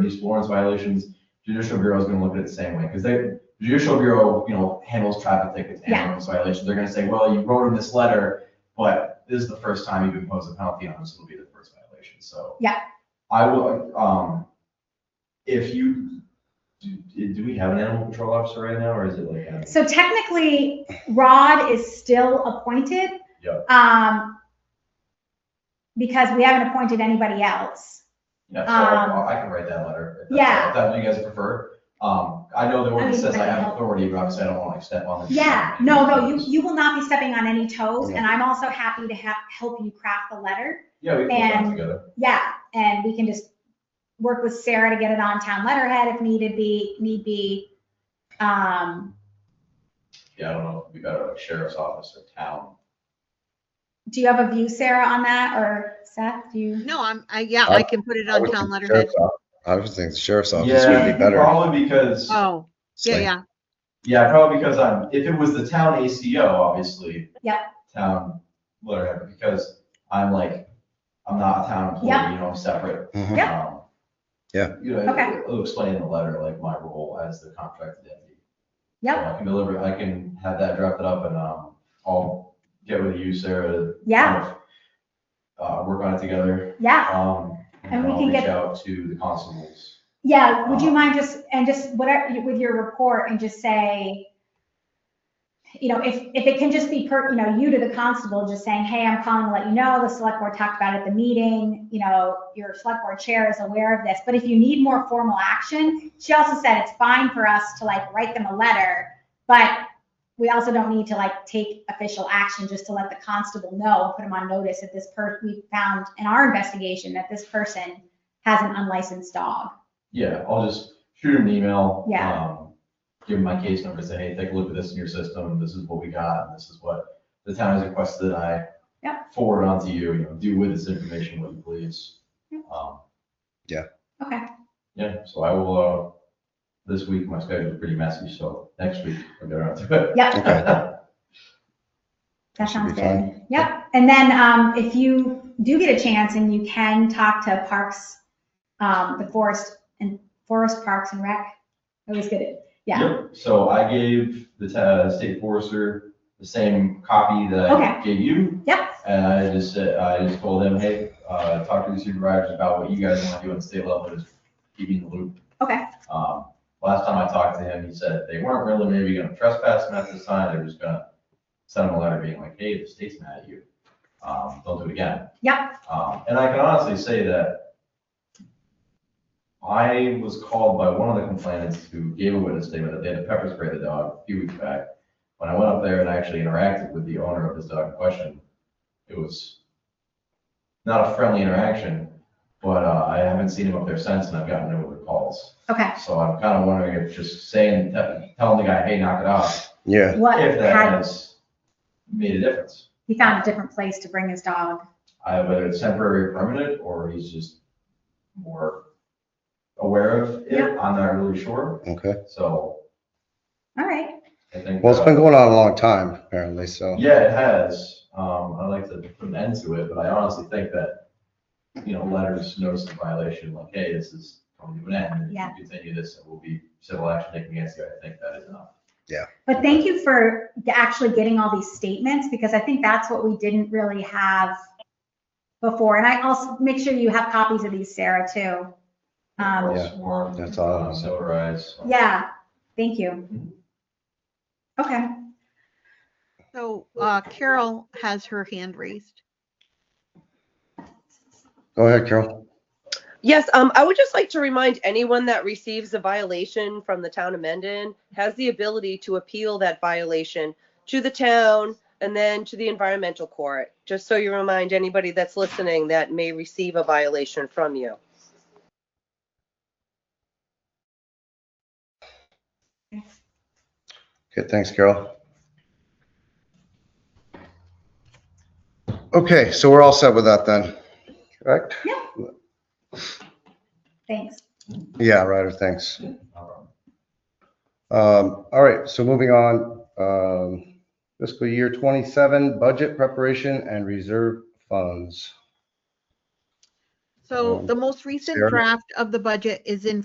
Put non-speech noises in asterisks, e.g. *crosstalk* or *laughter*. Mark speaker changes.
Speaker 1: these Florence violations, judicial bureau is gonna look at it the same way, because they, judicial bureau, you know, handles traffic tickets and
Speaker 2: Yeah.
Speaker 1: notice violations, they're gonna say, well, you wrote in this letter, but this is the first time you've imposed a penalty on us, it'll be the first violation, so.
Speaker 2: Yeah.
Speaker 1: I will, um, if you, do, do we have an animal control officer right now, or is it like? a-
Speaker 2: So technically, Rod is still appointed.
Speaker 1: Yep.
Speaker 2: Um, because we haven't appointed anybody else.
Speaker 1: Yeah, so I-
Speaker 2: Um,
Speaker 1: I can write that letter. if that's-
Speaker 2: Yeah.
Speaker 1: If that's what you guys prefer. Um, I know the ordinance
Speaker 2: mean,
Speaker 1: says I
Speaker 2: I
Speaker 1: have
Speaker 2: know.
Speaker 1: authority, but obviously I don't want to step on the.
Speaker 2: Yeah, no, no, you, you will not be stepping on any toes, and I'm also happy to ha help you craft the letter.
Speaker 1: Yeah, we can work
Speaker 2: and-
Speaker 1: together.
Speaker 2: Yeah, and we can just work with Sarah to get it on town letterhead if needed be, need be. Um,
Speaker 1: Yeah, I don't know, we got a sheriff's office or town.
Speaker 2: do you have a view, Sarah, on that, or Seth, do you?
Speaker 3: No, I'm, I, yeah, I can put it
Speaker 4: I
Speaker 3: on
Speaker 4: would
Speaker 3: town
Speaker 4: think the
Speaker 3: letterhead.
Speaker 4: sheriff's off- I would think the sheriff's office would be better.
Speaker 1: Probably because,
Speaker 3: Oh,
Speaker 4: It's
Speaker 3: yeah,
Speaker 4: like,
Speaker 3: yeah.
Speaker 1: yeah, probably because I'm, if it was the town ACO, obviously.
Speaker 2: Yeah.
Speaker 1: Town letterhead, but because I'm like, I'm not a town
Speaker 2: Yeah.
Speaker 1: employee, you know, I'm separate.
Speaker 4: mhm.
Speaker 2: Yeah.
Speaker 1: Um,
Speaker 4: Yeah.
Speaker 1: You know,
Speaker 2: Okay.
Speaker 1: it'll explain in the letter, like my role as the contracted entity.
Speaker 2: Yep.
Speaker 1: I can deliver, I can have that drafted up and, um, I'll get with you, Sarah. to
Speaker 2: Yeah,
Speaker 1: kind of, Uh, work on it together,
Speaker 2: yeah,
Speaker 1: um,
Speaker 2: And
Speaker 1: and
Speaker 2: we
Speaker 1: I'll
Speaker 2: can
Speaker 1: reach
Speaker 2: get-
Speaker 1: out to the constables.
Speaker 2: yeah, would you mind just, and just whatever, with your report and just say, you know, if, if it can just be per, you know, you to the constable, just saying, hey, I'm calling to let you know, the select board talked about it at the meeting, you know, your select board chair is aware of this, but if you need more formal action, she also said it's fine for us to like write them a letter, but we also don't need to like take official action just to let the constable know, and put them on notice that this per, we found in our investigation that this person has an unlicensed dog.
Speaker 1: Yeah, I'll just shoot him an email.
Speaker 2: Yeah.
Speaker 1: um, Give him my case number, say, hey, take a look at this in your system, this is what we got, and this is what the town has requested that I
Speaker 2: Yep.
Speaker 1: forward on to you, you know, do with this information what you please.
Speaker 2: Yep.
Speaker 1: Um,
Speaker 2: Okay.
Speaker 1: Yeah, so I will, uh, this week, my schedule's pretty messy, so next week, I'll get around to
Speaker 2: Yep,
Speaker 1: it.
Speaker 2: that
Speaker 4: should be
Speaker 2: sounds good.
Speaker 4: fine.
Speaker 2: Yep, and then um, if you do get a chance and you can talk to Parks, um, the Forest and Forest Parks and Rec, I always get it. *laughs* Yeah,
Speaker 1: Yep, So I gave the ta- state forester the same copy that I
Speaker 2: Okay.
Speaker 1: gave you.
Speaker 2: yep,
Speaker 1: And I just said, I just told them, hey, uh, talk to the supervisors about what you guys want to do on state level, just keep me in the loop.
Speaker 2: Okay.
Speaker 1: Um, last time I talked to him, he said they weren't really maybe gonna trespass him at this time, they were just gonna send him a letter being like, hey, the state's mad at you. Um, don't do it again.
Speaker 2: Yep.
Speaker 1: Um, and I can honestly say that I was called by one of the complainants who gave a witness statement that they had pepper sprayed the dog a few weeks back. When I went up there and actually interacted with the owner of this dog in question, it was not a friendly interaction, but uh, I haven't seen him up there since, and I've gotten no other calls.
Speaker 2: okay.
Speaker 1: So I'm kind of wondering if just saying, te- telling the guy, hey, knock it off,
Speaker 4: Yeah,
Speaker 2: What
Speaker 1: if that
Speaker 2: had,
Speaker 1: has made a difference.
Speaker 2: he found a different place to bring his dog.
Speaker 1: I Whether it's temporary or permanent, or he's just more aware of it,
Speaker 2: Yeah.
Speaker 1: I'm not really sure.
Speaker 4: okay.
Speaker 1: So
Speaker 2: All right,
Speaker 1: I think.
Speaker 4: Well, it's
Speaker 1: uh,
Speaker 4: been going on a long time, apparently, so.
Speaker 1: Yeah, it has. Um, I'd like to put an end to it, but I honestly think that, you know, letters, notice of violation, like, hey, this is coming to an end. and
Speaker 2: Yeah.
Speaker 1: If you continue this, it will be civil action taken against you. I think that is enough.
Speaker 2: but thank you for actually getting all these statements because I think that's what we didn't really have before. And I also, make sure you have copies of these, Sarah, too. Um,
Speaker 1: Well, sworn,
Speaker 4: That's all I
Speaker 1: uh,
Speaker 4: was-
Speaker 1: Notarized.
Speaker 2: Yeah, thank you.
Speaker 1: Mhm.
Speaker 2: Okay,
Speaker 3: So, uh, Carol has her hand raised.
Speaker 4: Go ahead, Carol.
Speaker 5: Yes, um, I would just like to remind anyone that receives a violation from the town of Mendon has the ability to appeal that violation to the town and then to the environmental court, just so you remind anybody that's listening that may receive a violation from you.
Speaker 4: Okay, thanks, Carol. Okay, so we're all set with that then, correct?
Speaker 2: thanks.
Speaker 4: Yeah, Ryder, thanks.
Speaker 1: Um,
Speaker 4: Um, all right, so moving on, um, fiscal year twenty-seven, budget preparation and reserve funds.
Speaker 3: So
Speaker 4: Um,
Speaker 3: the most recent
Speaker 4: Sarah?
Speaker 3: draft of the budget is in